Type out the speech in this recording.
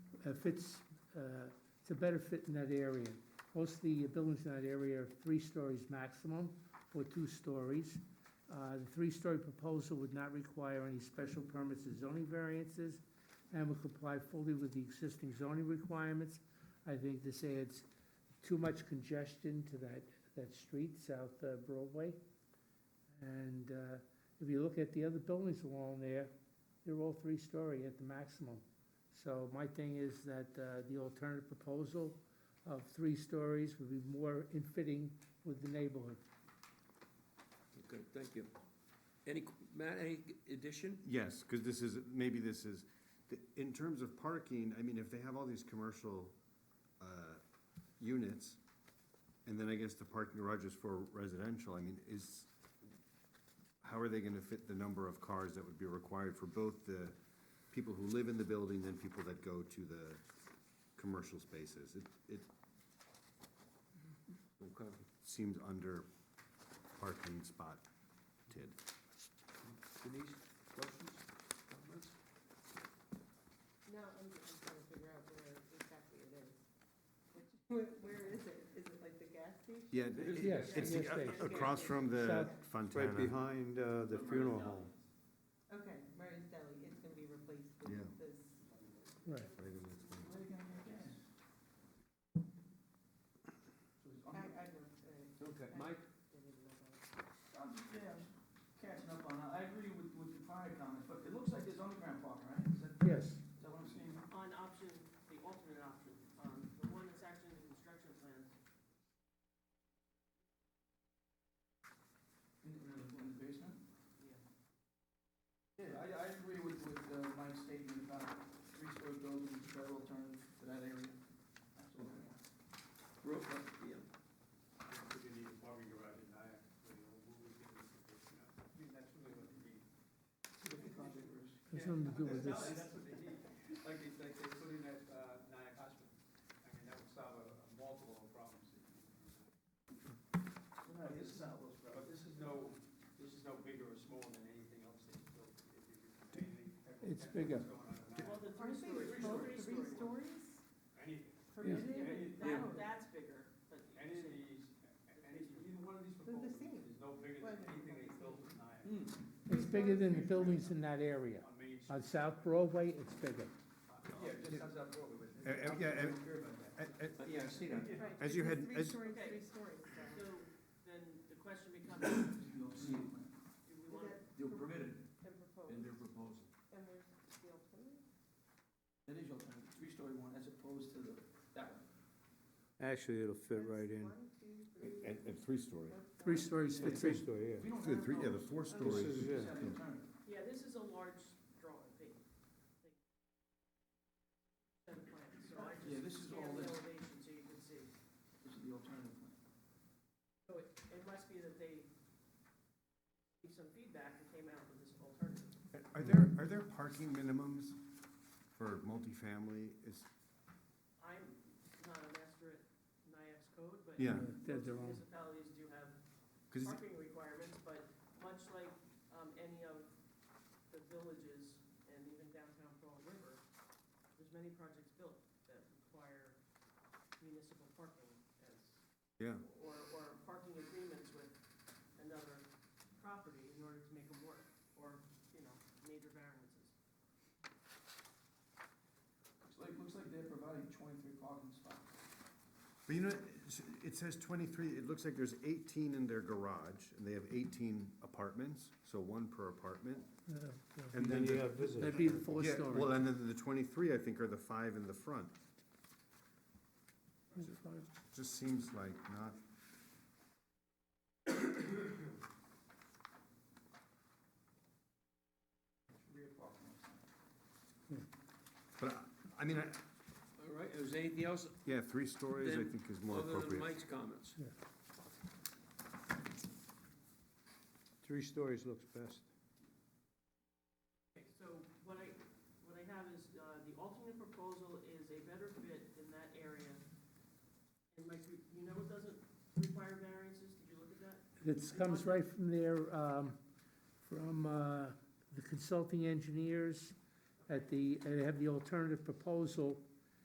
uh, fits, uh, it's a better fit in that area. Most of the buildings in that area are three stories maximum, or two stories. Uh, The three-story proposal would not require any special permits or zoning variances, and would comply fully with the existing zoning requirements. I think this adds too much congestion to that, that street, South uh, Broadway. And uh, if you look at the other buildings along there, they're all three-story at the maximum. So my thing is that uh, the alternative proposal of three stories would be more in fitting with the neighborhood. Okay, thank you. Any, qu- Matt, any addition? Yes, because this is, maybe this is, th- in terms of parking, I mean, if they have all these commercial uh, units, and then I guess the parking garage is for residential, I mean, is, how are they going to fit the number of cars that would be required for both the people who live in the building and people that go to the commercial spaces? It, it Okay. seems under parking spotted. Denise, questions, comments? No, I'm, I'm trying to figure out where exactly it is. Which- Where, where is it? Is it like the gas station? Yeah, It is it- Yes, it's yes, the- uh, they- across from the South- Fontana. Right behind uh, the funeral home. Okay, Murray's Deli, it's gonna be replaced Yeah. with this. Right. Right in this one. I, I know, uh, Okay, Mike? I didn't know that. I'm just, yeah, I'm catching up on, that. I agree with, with the prior comments, but it looks like there's underground parking, right? Is that, Yes, is that what I'm seeing? On option, the alternate option, um, the one that's actually in the construction plans, In, in the, in the basement? yeah. Yeah, I, I agree with, with uh, Mike's statement about three-story buildings, better alternative to that area. Absolutely. Ro- uh, yeah. See what the project is. has nothing to do with this. uh, No, this is not what's right. This is no, this is no bigger or smaller than anything else that you built. It's bigger. Well, the Aren't three they story, both three three story. stories? Permitted, Yeah, yeah, that, yeah. that's bigger, but. Any of these, They're the same. There's no bigger than anything they built. Hmm, It's bigger than the buildings in that area. On South Broadway, it's bigger. Yeah, it just comes out Broadway, but. Uh, uh, yeah, I uh, don't care about that. Uh, uh, uh, Yeah, I see that. Right, As it's you a had- as- Three stories, Okay. three stories, so. So then the question becomes, do we Is want, that They're permitted And proposed, in their proposal. and where's the alternative? That is your alternative, three-story one as opposed to the, that one. Actually, it'll fit right in. One, two, three. And, and three-story. four, five. Three stories Yeah, fits Three in. story, yeah. If you don't The have three, yeah, the those, four-story. This is, you just yeah. have an alternative. yeah, this is a large drawing, big, big. Set of plans, so I Yeah, just this is all scanned the this. elevation so you can see. This is the alternative plan. So it, it must be that they gave some feedback and came out with this alternative. Are there, are there parking minimums for multifamily? Is, I'm not a master at NIAX code, but. Yeah. They're Most their own. municipalities do have because, parking requirements, but much like, um, any of the villages and even downtown Fall River, there's many projects built that require municipal parking as, yeah, or, or parking agreements with another property in order to make them work, or, you know, major variances. Looks like, looks like they're providing twenty-three parking spots. but you know, it's- it says twenty-three, it looks like there's eighteen in their garage, and they have eighteen apartments, so one per apartment. Yeah, yeah. And Then then, you the- have visitors. That'd be the four yeah, well, story. and then the twenty-three, I think, are the five in the front. Just seems like not, Rear parking. lots. but I, I mean, I, All right, is there anything else yeah, three stories, I Then, think is more other than appropriate. Mike's comments? Three stories looks best. Okay, so what I, what I have is, uh, the alternate proposal is a better fit in that area. And Mike, you you know it doesn't require variances, did you look at that? It comes right from their, um, from, uh, the consulting engineers at the, and they have the alternative proposal